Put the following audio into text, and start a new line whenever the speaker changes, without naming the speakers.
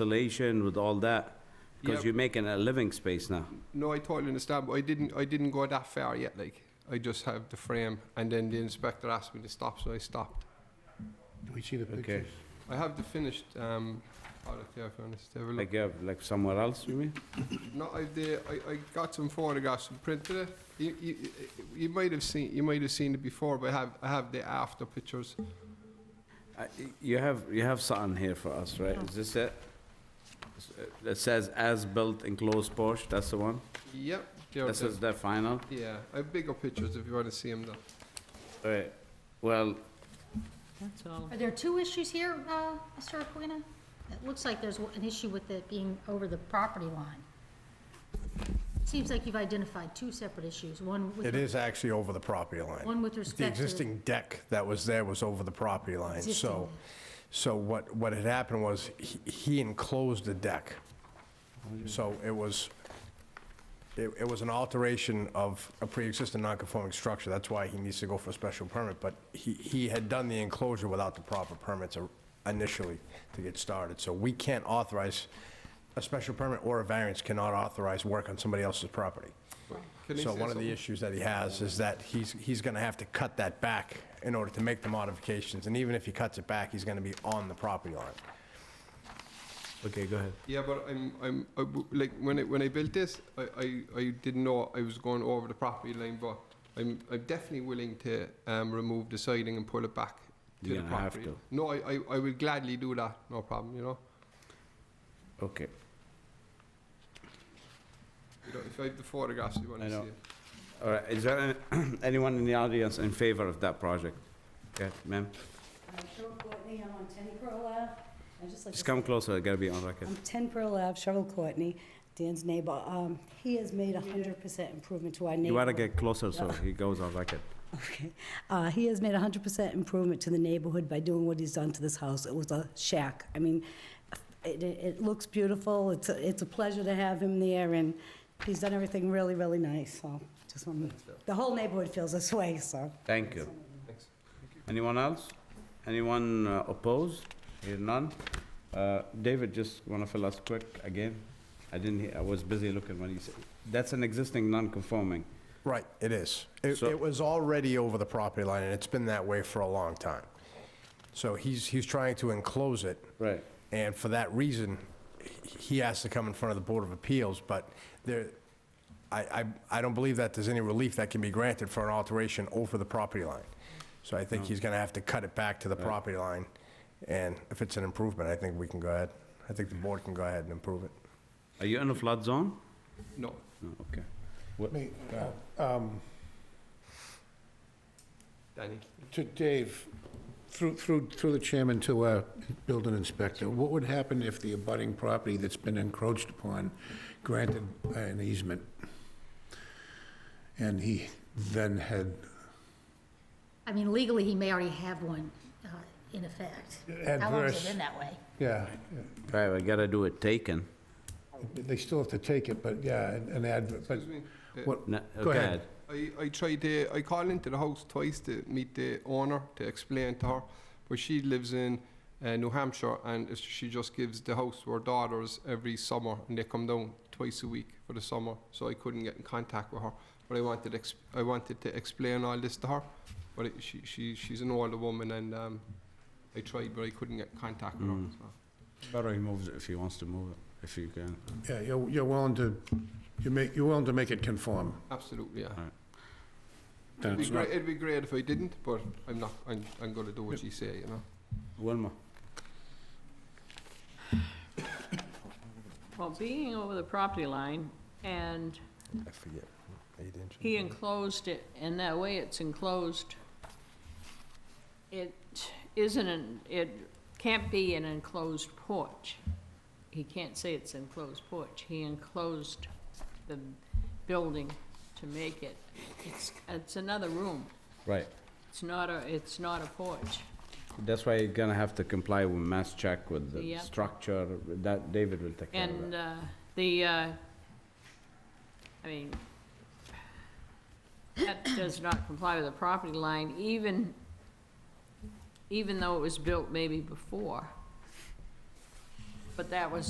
insulation with all that? Because
Yep.
you're making a living space now.
No, I totally understand, but I didn't. I didn't go that far yet. Like I just have the frame, and then the inspector asked me to stop, so I stopped.
Do we see the pictures?
I have the finished um, product here. If you want us to have a look.
Like, uh, like somewhere else, you mean?
No, I, the, I, I got some photographs and printed it. You, you, you might have seen you might have seen it before, but I have I have the after pictures.
I- You have, you have something here for us, right? Is this it? S- uh, It says as-built enclosed porch, that's the one?
Yep. there
This
it
is
is.
the final?
yeah, I have bigger pictures if you want to see them. Though.
All right, well,
That's all.
Are there two issues here, uh, Mr. Aquino? It looks like there's an issue with it being over the property line. Seems like you've identified two separate issues, one with.
It is actually over the property line.
One with respect to-
The existing deck that was there was over the property line, so,
Existing.
so what, what had happened was, he- he enclosed the deck. So it was, it, it was an alteration of a pre-existing non-conforming structure, that's why he needs to go for a special permit, but he, he had done the enclosure without the proper permits initially to get started, so we can't authorize, a special permit or a variance cannot authorize work on somebody else's property.
Can I
So
say
one of the
something?
issues that he has is that he's, he's gonna have to cut that back in order to make the modifications, and even if he cuts it back, he's gonna be on the property line.
okay, go ahead.
Yeah, but I'm, I'm, I w- like, when I, when I built this, I, I, I didn't know I was going over the property line, but I'm, I'm definitely willing to, um, remove the siding and pull it back to
You're
the
gonna have
property.
to.
No, I, I, I would gladly do that, no problem, you know?
Okay,
You know, if I have the photographs, you
I
wanna see
know.
it.
all right, is there any- anyone in the audience in favor of that project? Okay, ma'am,
I'm Cheryl Courtney, I'm on 10 Pearl Ave. I just like to
just
say-
come closer, I gotta be on record.
I'm 10 Pearl Ave, Cheryl Courtney, Dan's neighbor. Um, He has made a 100% improvement to our neighborhood.
You wanna get closer so he goes on record.
Okay. Uh, He has made a 100% improvement to the neighborhood by doing what he's done to this house. It was a shack. I mean, it, it it looks beautiful, it's, a- it's a pleasure to have him there, and he's done everything really, really nice, so just want, the whole neighborhood feels this way, so.
Thank you. Anyone else? Anyone uh, opposed? Here none? Uh, David, just wanna fill us quick again? I didn't, hear- I was busy looking when you said, that's an existing non-conforming.
Right, it is. It,
So-
it was already over the property line, and it's been that way for a long time. So he's, he's trying to enclose it.
Right.
And for that reason, he- he has to come in front of the Board of Appeals, but there, I, I, I don't believe that there's any relief that can be granted for an alteration over the property line. So I think he's gonna have to cut it back to the property line, and if it's an improvement, I think we can go ahead. I think the board can go ahead and improve it.
Are you in a flood zone?
No,
No, okay.
Me,
Yeah.
um,
Danny.
to Dave, through, through, through the chairman to our building inspector, what would happen if the abutting property that's been encroached upon granted an easement? And he then had,
I mean, legally, he may already have one, uh, in effect. How long has
Adverse.
it been that way?
yeah,
Right, we gotta do it taken.
they still have to take it, but yeah, an an advert, but
Excuse me.
what,
No,
Go
okay.
ahead.
I, I tried to, I called into the house twice to meet the owner to explain to her, but she lives in uh, New Hampshire and it's- she just gives the house to her daughters every summer and they come down twice a week for the summer, so I couldn't get in contact with her. But I wanted, ex- I wanted to explain all this to her, but it, she, she, she's an older woman and um, I tried, but I couldn't get in contact with her.
Mm.
So.
Better he moves it if he wants to move it, if you can.
yeah, you're, you're willing to, you make, you're willing to make it conform.
Absolutely, yeah.
Then
It'd be,
it's not-
great, it'd be great if I didn't, but I'm not. I'm, I'm going to do what she say, you know.
Wilma?
Well, being over the property line, and
I forget, eight inches?
he enclosed it, and that way it's enclosed, it isn't, an it can't be an enclosed porch. He can't say it's enclosed porch. He enclosed the building to make it, it's, it's another room.
Right.
It's not a, it's not a porch.
That's why you're gonna have to comply with mass check with the
Yep.
structure, that David will take care of
And
that.
uh, the, uh, I mean, that does not comply with the property line, even, even though it was built maybe before. but that was